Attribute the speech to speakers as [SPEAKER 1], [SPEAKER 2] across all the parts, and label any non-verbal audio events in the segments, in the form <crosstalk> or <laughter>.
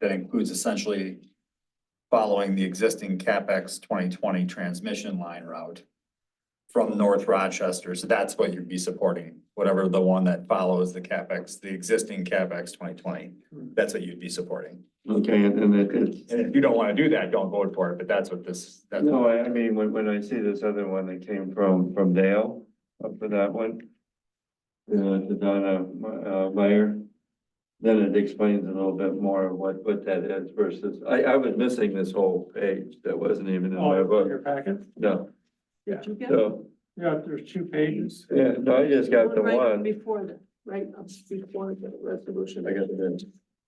[SPEAKER 1] that includes essentially following the existing CapEx twenty twenty transmission line route from North Rochester. So that's what you'd be supporting, whatever the one that follows the CapEx, the existing CapEx twenty twenty.
[SPEAKER 2] Hmm.
[SPEAKER 1] That's what you'd be supporting.
[SPEAKER 2] Okay, and then it, it's,
[SPEAKER 1] And if you don't want to do that, don't vote for it, but that's what this, that's.
[SPEAKER 2] no, I, I mean, when, when I see this other one that came from, from Dale, up for that one. Uh, to Donna, uh, Meyer, then it explains a little bit more of what, what that is versus, I, I was missing this whole page that wasn't even in my
[SPEAKER 3] Oh,
[SPEAKER 2] book,
[SPEAKER 3] your packet?
[SPEAKER 2] no,
[SPEAKER 3] Yeah,
[SPEAKER 4] Did you get
[SPEAKER 2] so,
[SPEAKER 3] yeah, there's two pages.
[SPEAKER 2] yeah, no, I just got the
[SPEAKER 4] Right
[SPEAKER 2] one.
[SPEAKER 4] Before the, right up before the resolution.
[SPEAKER 2] I got the,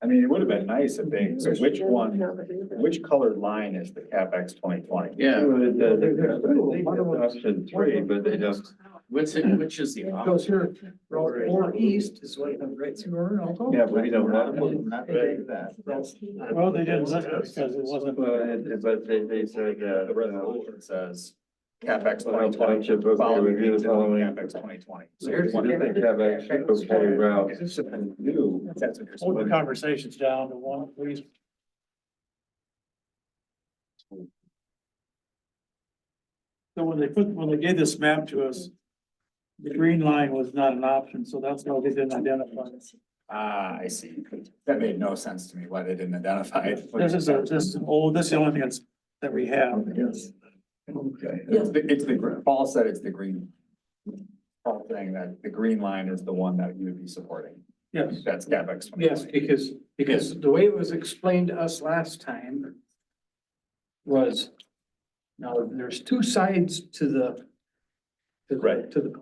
[SPEAKER 1] I mean, it would have been nice if they, so which
[SPEAKER 4] Doesn't
[SPEAKER 1] one,
[SPEAKER 4] have it either.
[SPEAKER 1] which colored line is the CapEx twenty twenty?
[SPEAKER 5] Yeah,
[SPEAKER 2] the, option three, but they don't.
[SPEAKER 5] what's it, which is the option?
[SPEAKER 3] here,
[SPEAKER 4] Route four east
[SPEAKER 3] is what comes right through Orinoco.
[SPEAKER 2] Yeah, but we don't want them.
[SPEAKER 3] Well, they didn't list it because it wasn't.
[SPEAKER 2] Well, it- it- But they, they said, uh,
[SPEAKER 1] The resolution says CapEx
[SPEAKER 2] Well,
[SPEAKER 1] twenty twenty.
[SPEAKER 2] township okay, review the following.
[SPEAKER 1] CapEx twenty twenty.
[SPEAKER 2] So here's what they have actually, okay, route and new.
[SPEAKER 1] That's what you're
[SPEAKER 3] Hold the
[SPEAKER 1] supporting.
[SPEAKER 3] conversations down to one, please. So when they put, when they gave this map to us, the green line was not an option, so that's why they didn't identify. it.
[SPEAKER 1] Ah, I see. That made no sense to me why they didn't identify it.
[SPEAKER 3] This is, a- this is, oh, this is the only thing that's, that we have.
[SPEAKER 1] Yes. Okay, it's the, it's the, gr- Paul said it's the green. Paul saying that the green line is the one that you would be supporting.
[SPEAKER 3] Yes.
[SPEAKER 1] That's CapEx twenty
[SPEAKER 6] Yes,
[SPEAKER 1] twenty.
[SPEAKER 6] because, because the way it was explained to us last time was, now, there's two sides to the to the-
[SPEAKER 1] Right.
[SPEAKER 6] to the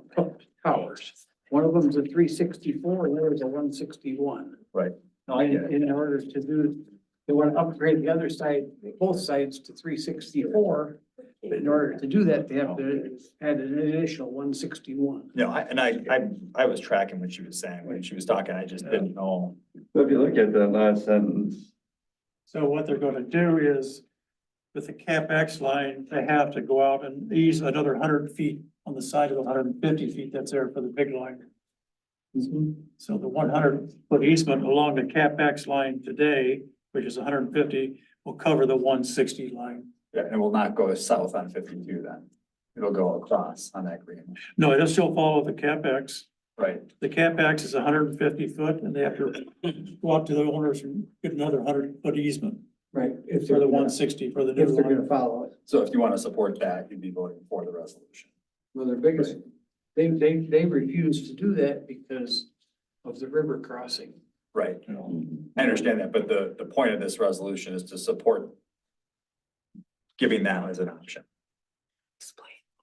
[SPEAKER 6] towers. One of them's a three sixty-four, and there is a one sixty-one.
[SPEAKER 1] Right.
[SPEAKER 6] Now,
[SPEAKER 1] get it.
[SPEAKER 6] in, in order to do, they want to upgrade the other side, both sides to three sixty-four. But in order to do that, they have to add an additional one sixty-one.
[SPEAKER 1] No, I, and I, I, I was tracking what she was saying when she was talking. I just didn't know.
[SPEAKER 2] So if you look at that last sentence,
[SPEAKER 3] So what they're gonna do is, with the CapEx line, they have to go out and ease another hundred feet on the side of the hundred and fifty feet that's there for the big line.
[SPEAKER 6] Mhm.
[SPEAKER 3] So the one hundred foot easement along the CapEx line today, which is hundred and fifty, will cover the one sixty line.
[SPEAKER 1] Yeah, and it will not go south on fifty-two then. It'll go across on that green.
[SPEAKER 3] No, it'll still follow the CapEx.
[SPEAKER 1] Right.
[SPEAKER 3] The CapEx is hundred and fifty foot, and they have to go out to the owners and get another hundred foot easement
[SPEAKER 6] Right. If
[SPEAKER 3] for the one sixty for the new
[SPEAKER 6] If they're
[SPEAKER 3] line.
[SPEAKER 6] gonna follow it.
[SPEAKER 1] So if you want to support that, you'd be voting for the resolution.
[SPEAKER 6] Well, their biggest, they, they, they refused to do that because of the river crossing.
[SPEAKER 1] Right.
[SPEAKER 5] Mm-hmm.
[SPEAKER 1] I understand that, but the, the point of this resolution is to support giving that as an option,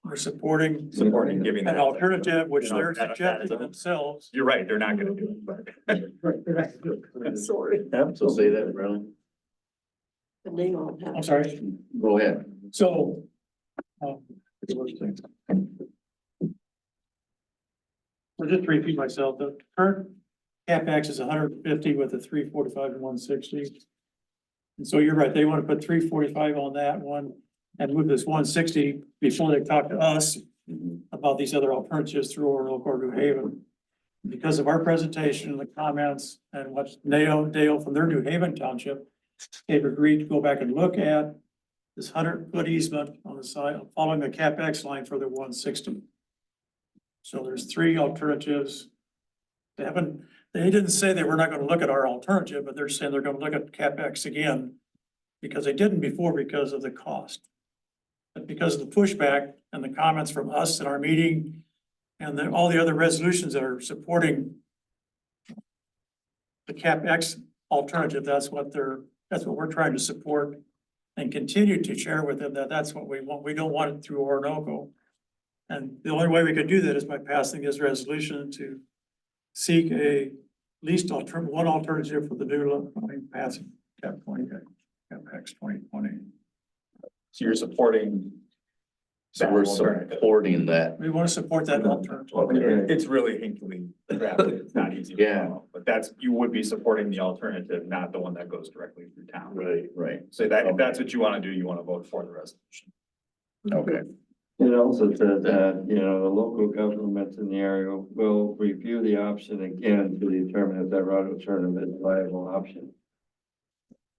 [SPEAKER 3] We're supporting
[SPEAKER 1] supporting giving that.
[SPEAKER 3] an alternative, which
[SPEAKER 1] You know,
[SPEAKER 3] they're
[SPEAKER 1] that- that is a-
[SPEAKER 3] suggesting themselves.
[SPEAKER 1] You're right, they're not gonna do it, but.
[SPEAKER 6] Right. they're not gonna do it.
[SPEAKER 4] Sorry,
[SPEAKER 2] so say that, Brown.
[SPEAKER 4] and they all have.
[SPEAKER 3] I'm sorry,
[SPEAKER 2] Go ahead.
[SPEAKER 3] so. um, So just to repeat myself, the current CapEx is hundred and fifty with a three forty-five and one sixty. And so you're right, they want to put three forty-five on that one and move this one sixty before they talk to us about these other alternatives through Orinoco or New Haven. Because of our presentation and the comments and what Nao, Dale from their New Haven Township, they've agreed to go back and look at this hundred foot easement on the side, following the CapEx line for the one sixty. So there's three alternatives. They haven't, they didn't say they were not gonna look at our alternative, but they're saying they're gonna look at CapEx again. Because they didn't before because of the cost. But because of the pushback and the comments from us in our meeting and then all the other resolutions that are supporting the CapEx alternative, that's what they're, that's what we're trying to support and continue to share with them that that's what we want. We don't want it through Orinoco. And the only way we could do that is by passing this resolution to seek a least alter, one alternative for the new line passing cap twenty, CapEx twenty twenty.
[SPEAKER 1] So you're supporting.
[SPEAKER 5] So
[SPEAKER 1] that
[SPEAKER 5] we're
[SPEAKER 1] alternative.
[SPEAKER 5] supporting that.
[SPEAKER 3] We want to support that alternative.
[SPEAKER 1] It- It's really hinky, drafted, it's
[SPEAKER 5] <laughs>
[SPEAKER 1] not easy. to
[SPEAKER 5] Yeah.
[SPEAKER 1] follow, But that's, you would be supporting the alternative, not the one that goes directly through town.
[SPEAKER 5] Right, right.
[SPEAKER 1] So that, if that's what you want to do, you want to vote for the resolution.
[SPEAKER 5] Okay.
[SPEAKER 2] It also says that, you know, the local governments in the area will review the option again to determine if that route alternative is a viable option.